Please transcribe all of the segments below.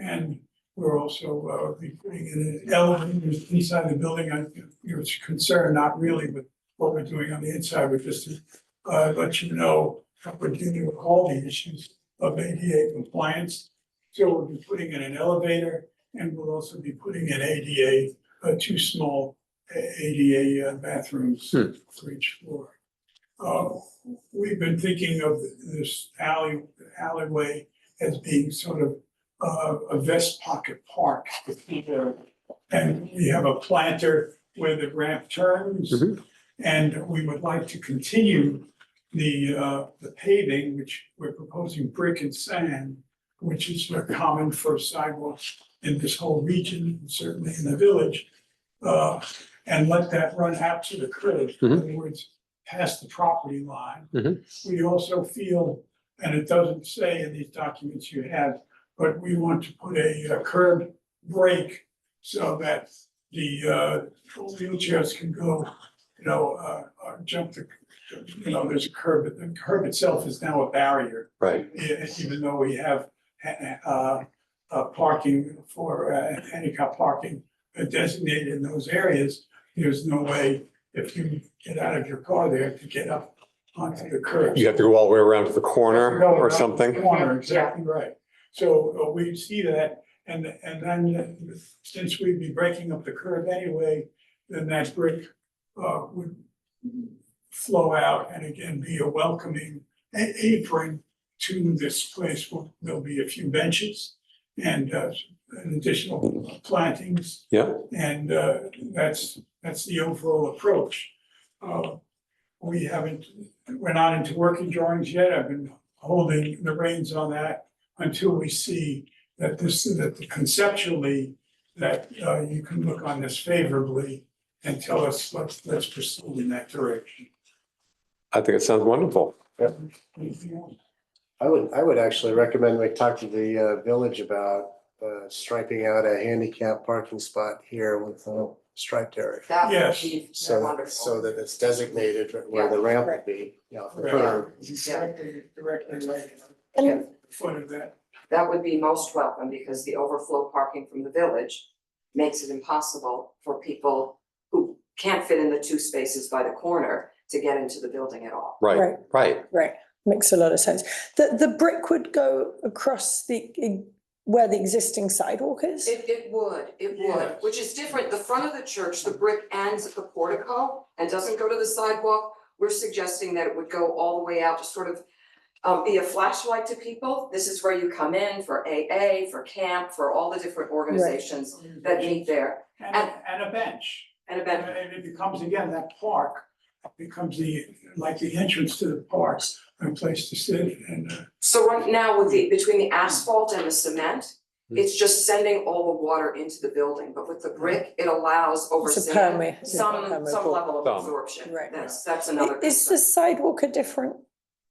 And we're also, uh, be putting in an elevator inside the building, I, you're concerned, not really, but what we're doing on the inside, we're just to, uh, let you know how we're dealing with all the issues of ADA compliance. So we'll be putting in an elevator and we'll also be putting in ADA, uh, two small uh, ADA uh, bathrooms Hmm. for each floor. Uh, we've been thinking of this alley, alleyway as being sort of uh, a vest pocket park. And we have a planter where the ramp turns. Mhm. And we would like to continue the, uh, the paving, which we're proposing brick and sand, which is uh, common for sidewalks in this whole region, certainly in the village. Uh, and let that run out to the curb, in Mhm. other words, past the property line. Mhm. We also feel, and it doesn't say in these documents you have, but we want to put a uh, curb break so that the uh, wheelchairs can go, you know, uh, uh, jump the, you know, there's a curb, the curb itself is now a barrier. Right. e- Even though we have uh, uh, parking for uh, handicap parking designated in those areas, there's no way if you get out of your car there to get up onto the curb. You have to go all the way around to the corner Go around or the something? Corner, exactly right. So uh, we see that and, and then uh, since we'd be breaking up the curve anyway, then that brick uh, would flow out and again be a welcoming a- apron to this place. Well, There'll be a few benches and uh, an additional plantings. Yeah. And uh, that's, that's the overall approach. Uh, We haven't, we're not into working drawings yet. I've been holding the reins on that until we see that this, that conceptually, that uh, you can look on this favorably and tell us, let's, let's pursue in that direction. I think it sounds wonderful. Anything else? I would, I would actually recommend we talk to the uh, village about uh, striping out a handicap parking spot here with a striped area. That Yes. would be So, that- wonderful. so that it's designated where the ramp would be, you know, for Right. curb. Directly, directly right at Yeah, the foot of that. That would be most welcome because the overflow parking from the village makes it impossible for people who can't fit in the two spaces by the corner to get into the building at all. Right, Right. right. Right, makes a lot of sense. The, the brick would go across the, e, where the existing sidewalk is? It, it would, it would, Yes. which is different. The front of the church, the brick ends at the portico and doesn't go to the sidewalk. We're suggesting that it would go all the way out to sort of um, be a flashlight to people. This is where you come in for AA, for camp, for all the different organizations that meet there And, a- and a bench. and And event. it becomes, again, that park becomes the, like the entrance to the park, a place to sit and, uh, So right now with the, between the asphalt and the cement, Hmm. it's just sending all the water into the building, but with the brick, it allows over It's a cement perme- yeah, some, some permeable. level of Some. absorption. Right. That's, that's another Is concern. the sidewalk a different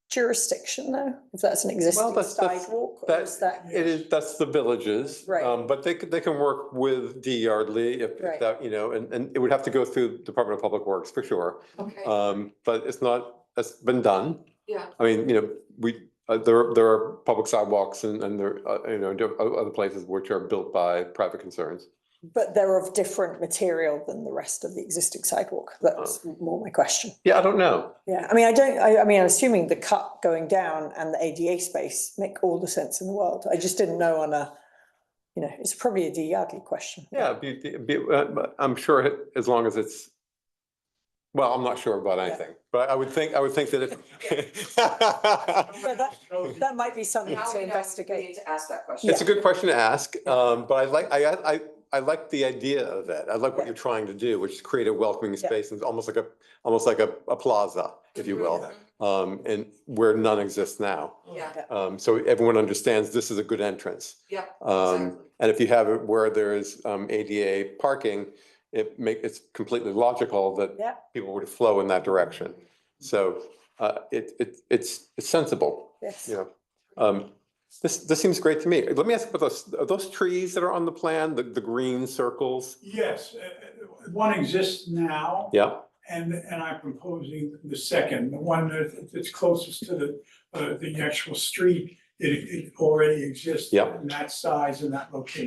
jurisdiction though? If that's an existing that's- that's- sidewalk, or that- is that, It is, that's the villages. Right. Um, but they could, they can work with D Yardley if if Right. that, you know, and, and it would have to go through Department of Public Works for sure. Okay, Um, but it's not, it's been done. yeah, I mean, you know, we, uh, there, there are public sidewalks and, and there, uh, you know, do- o- other places which are built by private concerns. but they're of different material than the rest of the existing sidewalk? That's Oh. more my question. Yeah, I don't know. Yeah, I mean, I don't, I, I mean, I'm assuming the cut going down and the ADA space make all the sense in the world. I just didn't know on a, you know, it's probably a D Yardley question. Yeah, be, be, uh, but I'm sure it- as long as it's, well, I'm not sure about anything, but I would think, I would think that it. But that, that might be something now to we know, we need investigate. to ask that question. It's a good question to ask, um, but I like, I, I, I- I like the idea of it. I like what Yeah. you're trying to do, which is create a welcoming Yeah. space and almost like a, almost like a, a plaza, if you Mm-hmm. will. Um, and where none exists now. Yeah, Um, so everyone understands this is a good entrance. yeah, Um, Exactly. and if you have it where there is, um, ADA parking, it make, it's completely logical that Yeah. people would flow in that direction. So, uh, it, it, it's, it's sensible, Yes. you know? Um, this, this seems great to me. Let me ask about those, are those trees that are on the plan, the, the green circles? yes, uh, uh, one exists now. Yeah, And, and I'm proposing the second, the one that- that's closest to the, uh, the actual street it, it already exists Yeah. in that size and that location.